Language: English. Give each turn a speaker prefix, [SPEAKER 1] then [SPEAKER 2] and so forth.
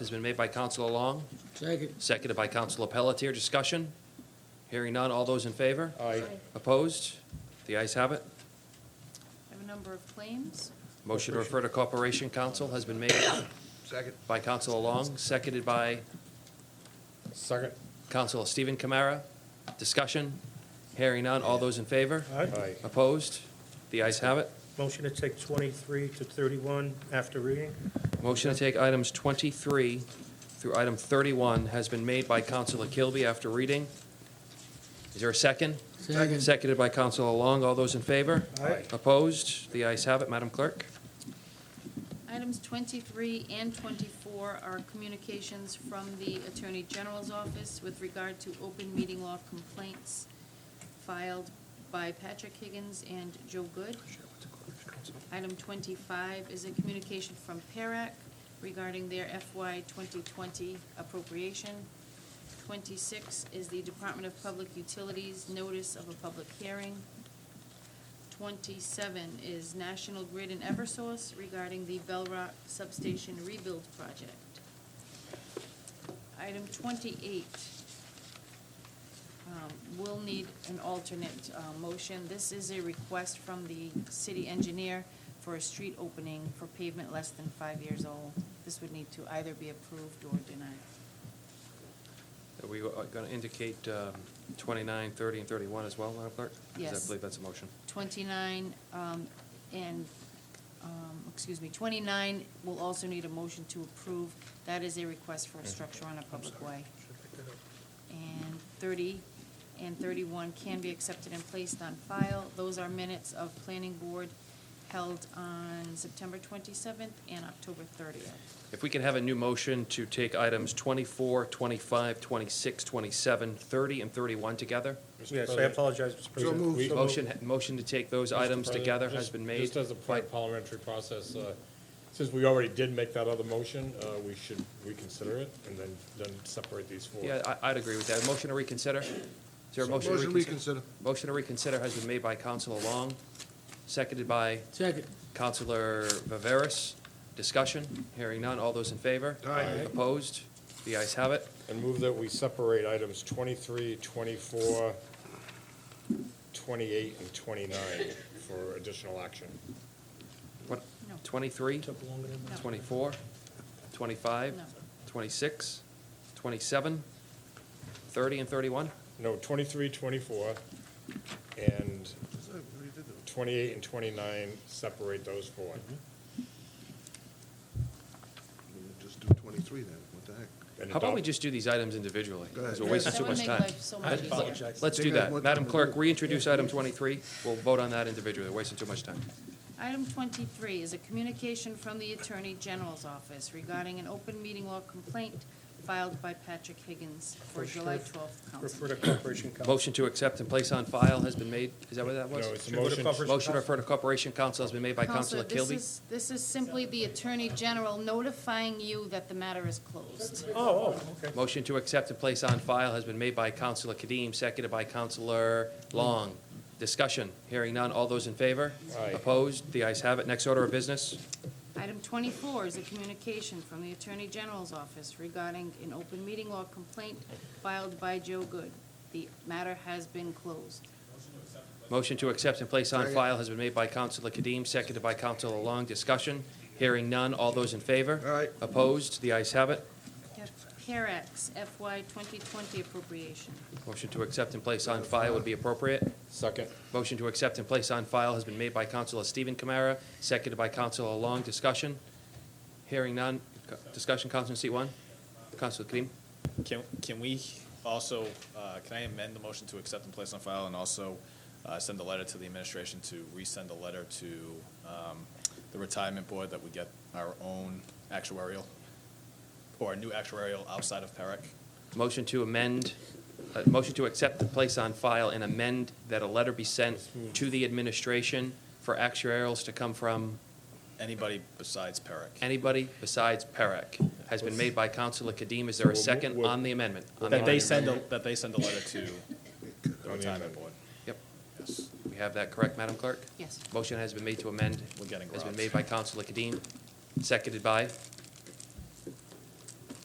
[SPEAKER 1] Has been made by Counselor Long,
[SPEAKER 2] Second.
[SPEAKER 1] seconded by Counselor Pelletier. Discussion? Hearing none. All those in favor?
[SPEAKER 2] Aye.
[SPEAKER 1] Opposed? The ayes have it.
[SPEAKER 3] I have a number of claims.
[SPEAKER 1] Motion to refer to Corporation Council has been made
[SPEAKER 4] Second.
[SPEAKER 1] by Counselor Long, seconded by
[SPEAKER 4] Second.
[SPEAKER 1] Counselor Stephen Kamara. Discussion? Hearing none. All those in favor?
[SPEAKER 4] Aye.
[SPEAKER 1] Opposed? The ayes have it.
[SPEAKER 5] Motion to take 23 to 31 after reading?
[SPEAKER 1] Motion to take items 23 through item 31 has been made by Counselor Kilby after reading. Is there a second?
[SPEAKER 2] Second.
[SPEAKER 1] Seconded by Counselor Long. All those in favor?
[SPEAKER 5] Aye.
[SPEAKER 1] Opposed? The ayes have it. Madam Clerk?
[SPEAKER 3] Items 23 and 24 are communications from the Attorney General's Office with regard to open meeting law complaints filed by Patrick Higgins and Joe Good. Item 25 is a communication from E PERAC regarding their FY 2020 appropriation. 26 is the Department of Public Utilities notice of a public hearing. 27 is National Grid and Eversource regarding the Bell Rock Substation Rebuild Project. Item 28 um, will need an alternate uh, motion. This is a request from the city engineer for a street opening for pavement less than five years old. This would need to either be approved or denied.
[SPEAKER 1] Are we going to indicate um, 29, 30, and 31 as well, Madam Clerk? 'Cause
[SPEAKER 3] Yes.
[SPEAKER 1] I believe that's a motion.
[SPEAKER 3] 29, um, and, um, excuse me, 29 will also need a motion to approve. That is a request for a structure on a public way. And 30 and 31 can be accepted and placed on file. Those are minutes of planning board held on September 27th and October 30th.
[SPEAKER 1] If we can have a new motion to take items 24, 25, 26, 27, 30, and 31 together?
[SPEAKER 5] Yes, I apologize, Mr. President.
[SPEAKER 2] moved.
[SPEAKER 4] We-
[SPEAKER 2] So
[SPEAKER 1] Motion, motion to take those
[SPEAKER 4] Mr.
[SPEAKER 1] items
[SPEAKER 4] President,
[SPEAKER 1] together has
[SPEAKER 4] just-
[SPEAKER 1] been made.
[SPEAKER 4] Just as a
[SPEAKER 1] by-
[SPEAKER 4] part of parliamentary process, uh, since we already did make that other motion, uh, we should reconsider it and then, then separate these four.
[SPEAKER 1] Yeah, I- I'd agree with that. Motion to reconsider? Is there a motion to reconsider? Motion to reconsider has been made by Counselor Long, seconded by
[SPEAKER 2] Second.
[SPEAKER 1] Counselor Viveras. Discussion? Hearing none. All those in favor?
[SPEAKER 4] Aye.
[SPEAKER 1] Opposed? The ayes have it.
[SPEAKER 4] And move that we separate items 23, 24, 28, and 29 for additional action.
[SPEAKER 1] What,
[SPEAKER 3] No.
[SPEAKER 1] 23,
[SPEAKER 5] Took longer than
[SPEAKER 3] No.
[SPEAKER 1] 24, 25,
[SPEAKER 3] No.
[SPEAKER 1] 26, 27, 30, and 31?
[SPEAKER 4] No, 23, 24, and 28 and 29, separate those four.
[SPEAKER 6] Just do 23 then, what the heck?
[SPEAKER 4] and
[SPEAKER 1] How about
[SPEAKER 4] adopt-
[SPEAKER 1] we just do these items individually?
[SPEAKER 6] Go ahead.
[SPEAKER 1] Because we're wasting
[SPEAKER 3] That
[SPEAKER 1] too
[SPEAKER 3] would
[SPEAKER 1] much
[SPEAKER 3] make
[SPEAKER 1] time.
[SPEAKER 3] life so much
[SPEAKER 1] I-
[SPEAKER 3] easier.
[SPEAKER 5] apologize.
[SPEAKER 1] Let's
[SPEAKER 6] They
[SPEAKER 1] do
[SPEAKER 6] got
[SPEAKER 1] that.
[SPEAKER 6] more
[SPEAKER 1] Madam
[SPEAKER 6] time to
[SPEAKER 1] Clerk,
[SPEAKER 6] do.
[SPEAKER 1] reintroduce item 23. We'll vote on that individually. We're wasting too much time.
[SPEAKER 3] Item 23 is a communication from the Attorney General's Office regarding an open meeting law complaint filed by Patrick Higgins for
[SPEAKER 5] Motion to
[SPEAKER 3] July
[SPEAKER 5] ref-
[SPEAKER 3] 12th council.
[SPEAKER 5] Refer to Corporation Council.
[SPEAKER 1] Motion to accept and place on file has been made. Is that what that was?
[SPEAKER 4] No, it's a
[SPEAKER 5] Should we go to
[SPEAKER 4] motion.
[SPEAKER 5] Corporation
[SPEAKER 1] Motion to refer to Corporation Council has been made by Counselor
[SPEAKER 3] Counselor, this
[SPEAKER 1] Kilby.
[SPEAKER 3] is, this is simply the Attorney General notifying you that the matter is closed.
[SPEAKER 5] Oh, oh, okay.
[SPEAKER 1] Motion to accept and place on file has been made by Counselor Kadim, seconded by Counselor Long. Discussion, hearing none. All those in favor?
[SPEAKER 4] Aye.
[SPEAKER 1] Opposed? The ayes have it. Next order of business.
[SPEAKER 3] Item 24 is a communication from the Attorney General's Office regarding an open meeting law complaint filed by Joe Good. The matter has been closed.
[SPEAKER 1] Motion to accept and place on file has been made by Counselor Kadim, seconded by Counselor Long. Discussion, hearing none. All those in favor?
[SPEAKER 6] Aye.
[SPEAKER 1] Opposed? The ayes have it.
[SPEAKER 3] CARAX FY 2020 appropriation.
[SPEAKER 1] Motion to accept and place on file would be appropriate.
[SPEAKER 4] Second.
[SPEAKER 1] Motion to accept and place on file has been made by Counselor Stephen Kamara, seconded by Counselor Long. Discussion? Hearing none. Discussion, Counselor in seat one? Counselor Kadim?
[SPEAKER 7] Can, can we also, uh, can I amend the motion to accept and place on file and also uh, send a letter to the administration to resend a letter to um, the retirement board that we get our own actuarial, or a new actuarial outside of PERIC?
[SPEAKER 1] Motion to amend, uh, motion to accept the place on file and amend that a letter be sent to the administration for actuarials to come from
[SPEAKER 7] Anybody besides PERIC?
[SPEAKER 1] anybody besides Perrick. Has been made by Counselor Kadim. Is there a second on the amendment? On the
[SPEAKER 7] That they
[SPEAKER 1] amendment.
[SPEAKER 7] send, a that they send a letter to the retirement board.
[SPEAKER 1] Yep.
[SPEAKER 7] Yes.
[SPEAKER 1] We have that correct, Madam Clerk?
[SPEAKER 3] Yes.
[SPEAKER 1] Motion has been made to amend.
[SPEAKER 7] We're getting
[SPEAKER 1] Has been
[SPEAKER 7] robbed.
[SPEAKER 1] made by Counselor Kadim, seconded by